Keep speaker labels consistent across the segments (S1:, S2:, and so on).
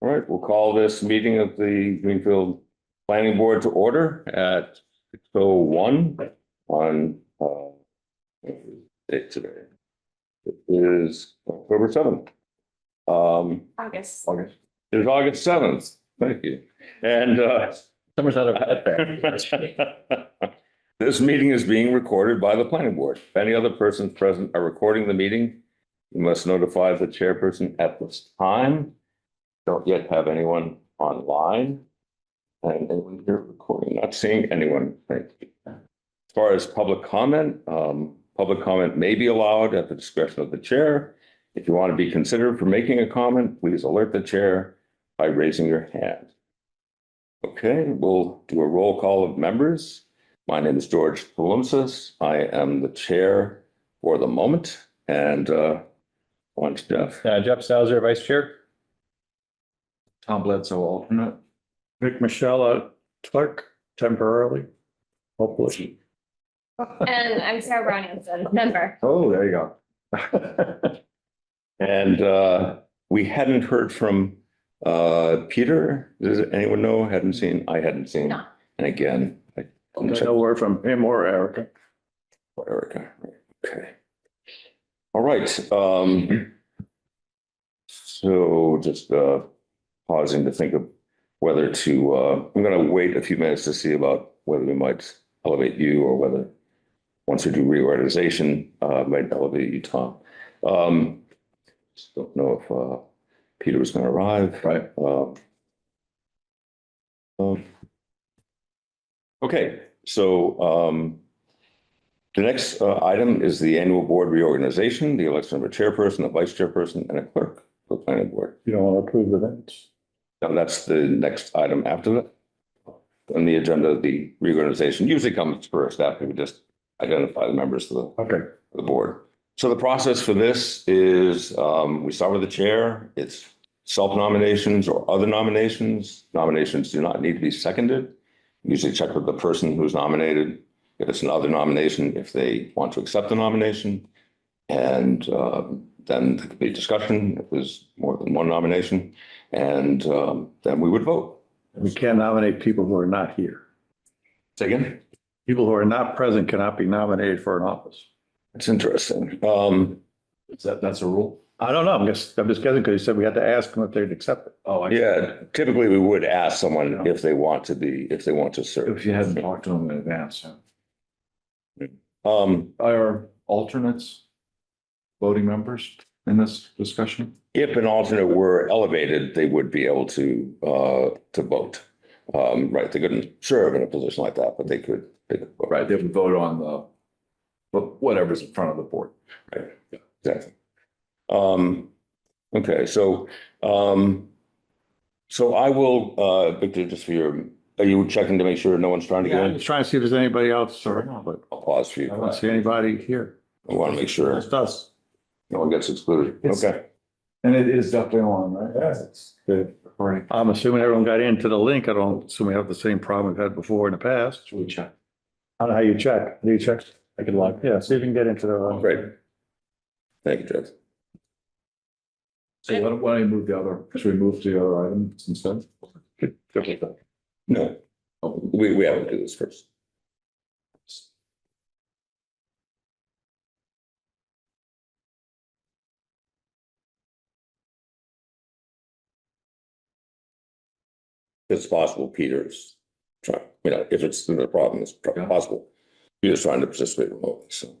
S1: All right, we'll call this meeting of the Greenfield Planning Board to order at six oh one on uh date today. It is October seventh. Um,
S2: August.
S1: August. It was August seventh. Thank you. And uh
S3: Summer's out of
S1: This meeting is being recorded by the planning board. If any other persons present are recording the meeting, you must notify the chairperson at this time. Don't yet have anyone online. And anyone here recording, not seeing anyone, thank you. As far as public comment, um, public comment may be allowed at the discretion of the chair. If you want to be considered for making a comment, please alert the chair by raising your hand. Okay, we'll do a roll call of members. My name is George Palumpsas. I am the chair for the moment and uh, one's Jeff.
S3: Uh, Jeff Salzer, Vice Chair.
S4: Tom Bledsoe alternate.
S5: Vic Michelle uh, clerk temporarily, hopefully.
S2: And I'm Sarah Brown Hanson, member.
S4: Oh, there you go.
S1: And uh, we hadn't heard from uh, Peter. Does anyone know? Hadn't seen? I hadn't seen.
S2: No.
S1: And again, I didn't check
S5: No word from him or Erica.
S1: for Erica. Okay. All right. um, So just uh, pausing to think of whether to, uh, I'm going to wait a few minutes to see about whether we might elevate you or whether, once we do reorganization, uh, might elevate you, Tom. Um, Just don't know if uh, Peter was going to arrive.
S4: Right.
S1: Um, um, Okay, so um, the next uh, item is the annual board reorganization, the election of a chairperson, a vice chairperson, and a clerk for the planning board.
S5: You don't want to approve the minutes.
S1: Now, that's the next item after that. On the agenda, the reorganization usually comes first after we just identify the members of the
S5: Okay.
S1: the board. So the process for this is, um, we start with the chair, it's self-nominations or other nominations. Nominations do not need to be seconded. Usually check with the person who's nominated, if it's another nomination, if they want to accept the nomination. And, um, then there could be discussion, if there's more than one nomination, and, um, then we would vote.
S5: We can't nominate people who are not here.
S1: Say again?
S5: People who are not present cannot be nominated for an office.
S1: It's interesting. Um,
S4: Is that, that's a rule?
S5: I don't know, I'm just, I'm just guessing because you said we had to ask them if they'd accept it.
S4: Oh, I.
S1: yeah, typically we would ask someone if they want to be, if they want to serve.
S4: If you hadn't talked to them in advance, yeah.
S1: Um,
S4: Are alternates voting members in this discussion?
S1: if an alternate were elevated, they would be able to, uh, to vote. Um, right, they couldn't serve in a position like that, but they could, they could vote.
S4: Right, they would vote on the, but whatever's in front of the board.
S1: Exactly. Um, okay, so, um, so I will, uh, Victor, just for your, are you checking to make sure no one's trying to get
S5: I'm
S1: in?
S5: just trying to see if there's anybody else or not, but
S1: I'll pause for you.
S5: I don't see anybody here.
S1: I want to make sure
S5: Just us.
S1: no one gets excluded.
S4: It's-
S1: Okay.
S4: And it is definitely on, right? Yes, it's good. According
S5: I'm assuming everyone got into the link. I don't assume we have the same problem we've had before in the past.
S4: to check.
S5: I don't know how you check. Do you check? I can log. Oh, Yeah, see if you can get into the.
S1: Great. Thank you, Jeff.
S4: So why don't, why don't we move the other, should we move to the other item instead?
S1: No,
S4: Oh,
S1: we, we have to do this first. If It's possible Peter's trying, you know, if it's the problem, it's pro-
S4: Yeah.
S1: possible. Peter's trying to participate remotely, so.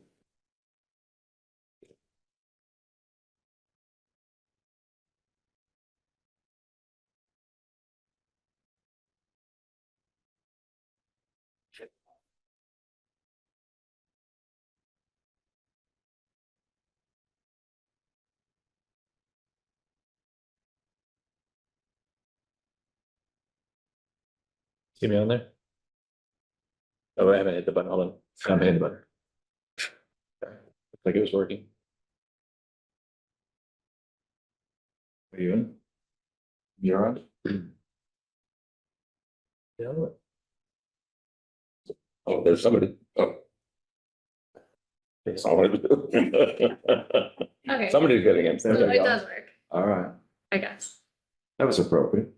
S3: See me on there? Oh, I haven't hit the button. Hold on. I haven't hit the button. Looks Like it was working.
S4: Are you in? You're on?
S3: Yeah.
S1: Oh, there's somebody. Oh. Somebody.
S2: Okay, so
S1: Somebody's getting in.
S2: it does work,
S4: All right.
S2: I guess.
S4: That was appropriate.